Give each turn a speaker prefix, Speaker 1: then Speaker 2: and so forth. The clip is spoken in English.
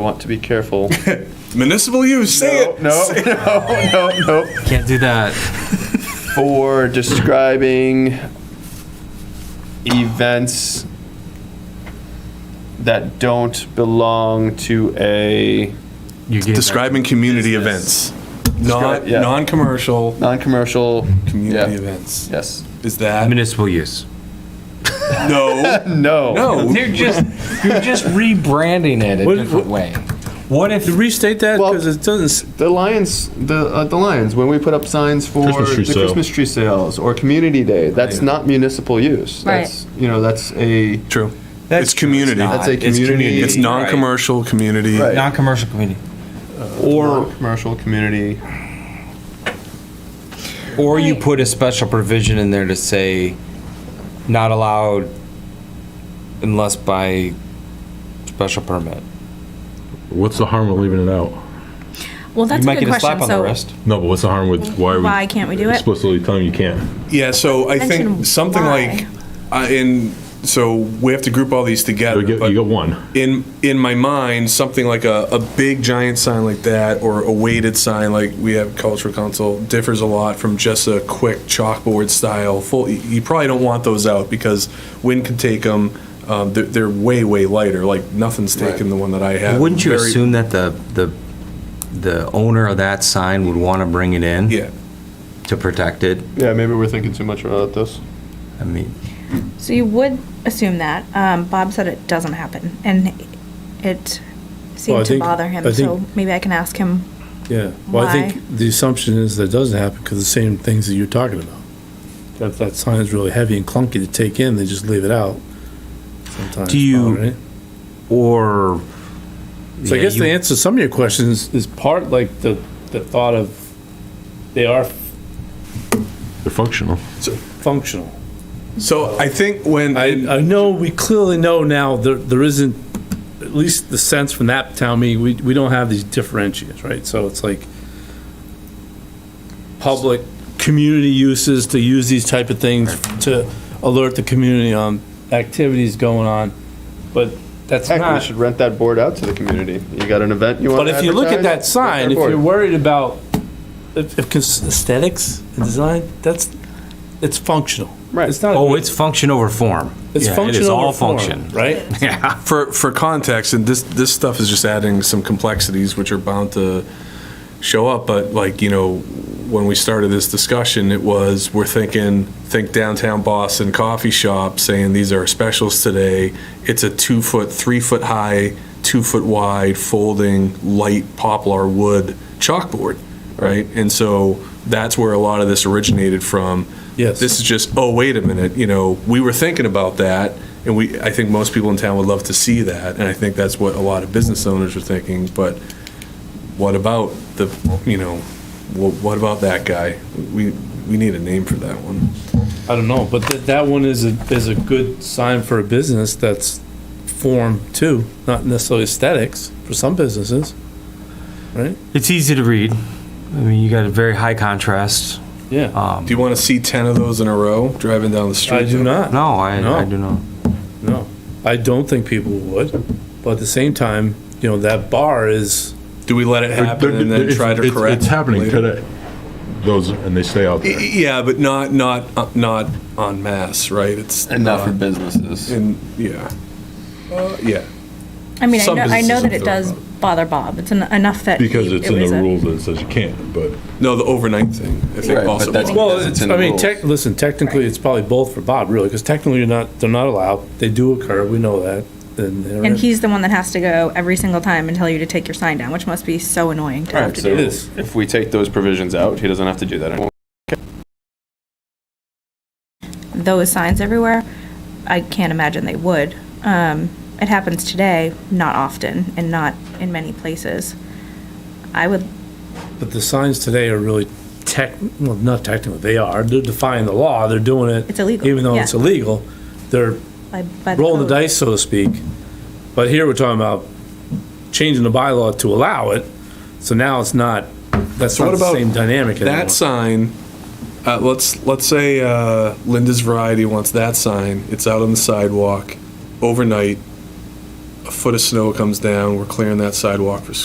Speaker 1: want to be careful.
Speaker 2: Municipal use, say
Speaker 1: No,
Speaker 2: it.
Speaker 1: no,
Speaker 2: Say-
Speaker 1: no, no, no.
Speaker 3: Can't do that.
Speaker 1: For describing events that don't belong to a
Speaker 3: You gave that-
Speaker 2: Describing community events, not,
Speaker 1: Describe- yeah.
Speaker 2: non-commercial
Speaker 1: non-commercial.
Speaker 2: community
Speaker 1: yeah,
Speaker 2: events.
Speaker 1: Yes.
Speaker 2: Is that,
Speaker 3: municipal use.
Speaker 2: no,
Speaker 1: No.
Speaker 2: no.
Speaker 4: You're just you're just rebranding it a
Speaker 5: What-
Speaker 4: different way. What if
Speaker 5: Restate that,
Speaker 1: Well-
Speaker 5: because it doesn't, s-
Speaker 1: The Lions, the uh, the Lions. When we put up signs for
Speaker 6: Christmas tree
Speaker 1: the
Speaker 6: sale.
Speaker 1: Christmas tree sales or Community Day, that's not municipal use.
Speaker 7: Right.
Speaker 1: That's you know that's a
Speaker 2: True.
Speaker 4: That's
Speaker 2: It's community.
Speaker 4: not.
Speaker 1: that's a
Speaker 4: It's
Speaker 1: community.
Speaker 4: community.
Speaker 2: It's non-commercial community.
Speaker 1: Right.
Speaker 4: non-commercial community,
Speaker 1: or commercial community.
Speaker 4: or you put a special provision in there to say not allowed unless by special permit?
Speaker 6: What's the harm of leaving it out?
Speaker 7: Well, that's
Speaker 4: you
Speaker 7: a
Speaker 4: might
Speaker 7: good
Speaker 4: get a slap
Speaker 7: question.
Speaker 4: on the
Speaker 7: So,
Speaker 4: wrist.
Speaker 6: No, but what's the harm with, why are we?
Speaker 7: Why can't we do it?
Speaker 6: Explicitly telling you can't.
Speaker 2: Yeah, so I
Speaker 7: Mention
Speaker 2: think something like,
Speaker 7: why.
Speaker 2: uh, in, so we have to group all these together.
Speaker 6: You get,
Speaker 2: but-
Speaker 6: you get one.
Speaker 2: in in my mind something like a, a big giant sign like that or a weighted sign like we have cultural council differs a lot from just a quick chalkboard style full you- you probably don't want those out because wind can take them um, they're, they're way way lighter like nothing's taken the one that i have
Speaker 4: Wouldn't you
Speaker 2: Very-
Speaker 4: assume that the the the owner of that sign would want to bring it in
Speaker 2: yeah
Speaker 4: to protect it?
Speaker 1: Yeah, maybe we're thinking too much about this.
Speaker 4: I mean,
Speaker 7: so you would assume that. Um, Bob said it doesn't happen, and it seemed
Speaker 5: Well, I
Speaker 7: to
Speaker 5: think-
Speaker 7: bother him.
Speaker 5: I
Speaker 7: so
Speaker 5: think-
Speaker 7: maybe I can ask him.
Speaker 5: yeah. Well, I
Speaker 7: Why?
Speaker 5: think the assumption is that it doesn't happen because the same things that you're talking about. That, if that sign is really heavy and clunky to take in, they just leave it out sometimes.
Speaker 4: Do you-
Speaker 5: Paul, right?
Speaker 4: or
Speaker 5: So I
Speaker 4: Yeah,
Speaker 5: guess
Speaker 4: you-
Speaker 5: the answer to some of your questions is part like the, the thought of, they are
Speaker 6: They're functional.
Speaker 5: functional.
Speaker 2: so i think when
Speaker 5: I, I know, we clearly know now there, there isn't, at least the sense from that town meeting, we, we don't have these differentiators, right? So it's like public, community uses to use these type of things to alert the community on activities going on. But that's
Speaker 1: Heck, we
Speaker 5: not,
Speaker 1: should rent that board out to the community. You got an event you want.
Speaker 5: but if you look at that sign, if you're worried about, if, if cons- aesthetics and design, that's, it's functional.
Speaker 1: Right.
Speaker 5: It's not,
Speaker 4: oh, it's function over form.
Speaker 5: it's
Speaker 4: Yeah,
Speaker 5: functional.
Speaker 4: It is all
Speaker 5: over form,
Speaker 4: function.
Speaker 5: Right?
Speaker 4: Yeah.
Speaker 2: for for context, and this this stuff is just adding some complexities which are bound to show up. But like you know, when we started this discussion, it was we're thinking think downtown Boston coffee shop saying these are specials today. It's a two foot, three foot high, two foot wide folding light poplar wood chalkboard, right? And so that's where a lot of this originated from
Speaker 5: Yes.
Speaker 2: this is just, oh, wait a minute, you know, we were thinking about that, and we, I think most people in town would love to see that, and I think that's what a lot of business owners are thinking, but what about the, you know, wha- what about that guy? We, we need a name for that one.
Speaker 5: I don't know, but that, that one is a, is a good sign for a business that's form too, not necessarily aesthetics for some businesses.
Speaker 4: It's easy to read. I mean, you got a very high contrast.
Speaker 5: Yeah.
Speaker 4: Um,
Speaker 2: Do you want to see 10 of those in a row driving down the street?
Speaker 5: I do not,
Speaker 4: no, I, I
Speaker 5: No.
Speaker 4: do not.
Speaker 5: no. I don't think people would, but at the same time, you know, that bar is,
Speaker 2: Do we let it happen and then
Speaker 6: It's-
Speaker 2: try to
Speaker 6: it's-
Speaker 2: correct?
Speaker 6: It's happening
Speaker 2: later?
Speaker 6: today. Those, and they stay out
Speaker 2: Y-
Speaker 7: E,
Speaker 6: there.
Speaker 2: Yeah, but not, not, uh, not en masse, right? It's.
Speaker 1: and not for
Speaker 2: not-
Speaker 1: businesses.
Speaker 2: And, yeah. Uh, Yeah.
Speaker 7: I mean, I
Speaker 2: Some
Speaker 7: know, I know
Speaker 2: businesses
Speaker 7: that it
Speaker 2: don't
Speaker 7: does
Speaker 2: know.
Speaker 7: bother Bob. It's en- enough that
Speaker 6: Because
Speaker 7: he-
Speaker 6: it's
Speaker 7: it
Speaker 6: in
Speaker 7: was
Speaker 6: the
Speaker 7: a-
Speaker 6: rules that says you can't, but
Speaker 2: No, the overnight thing, I think
Speaker 1: Right, but
Speaker 2: also.
Speaker 1: that's-
Speaker 2: bothers
Speaker 5: well,
Speaker 1: Because it's
Speaker 5: it's-
Speaker 1: in the
Speaker 5: I mean,
Speaker 1: rules.
Speaker 5: tec- listen, technically, it's probably both for Bob really, because technically you're not, they're not allowed. They do occur, we know that. And they're-
Speaker 7: And he's the one that has to go every single time and tell you to take your sign down, which must be so annoying to
Speaker 1: All
Speaker 7: have
Speaker 1: right,
Speaker 7: to
Speaker 1: so
Speaker 7: do.
Speaker 5: is.
Speaker 1: if we take those provisions out, he doesn't have to do that anymore.
Speaker 7: those signs everywhere, I can't imagine they would. Um, it happens today, not often, and not in many places. I would,
Speaker 5: But the signs today are really tech, well, not technical, they are, they're defying the law, they're doing it.
Speaker 7: It's illegal,
Speaker 5: Even though
Speaker 7: yeah.
Speaker 5: it's illegal, they're
Speaker 7: by, by the
Speaker 5: rolling the
Speaker 7: code.
Speaker 5: dice, so to speak. But here we're talking about changing the bylaw to allow it, so now it's not, that's
Speaker 2: So
Speaker 5: not
Speaker 2: what
Speaker 5: the
Speaker 2: about
Speaker 5: same dynamic anymore.
Speaker 2: That sign, uh, let's, let's say, uh, Linda's Variety wants that sign, it's out on the sidewalk, overnight. a foot of snow comes down, we're clearing that sidewalk for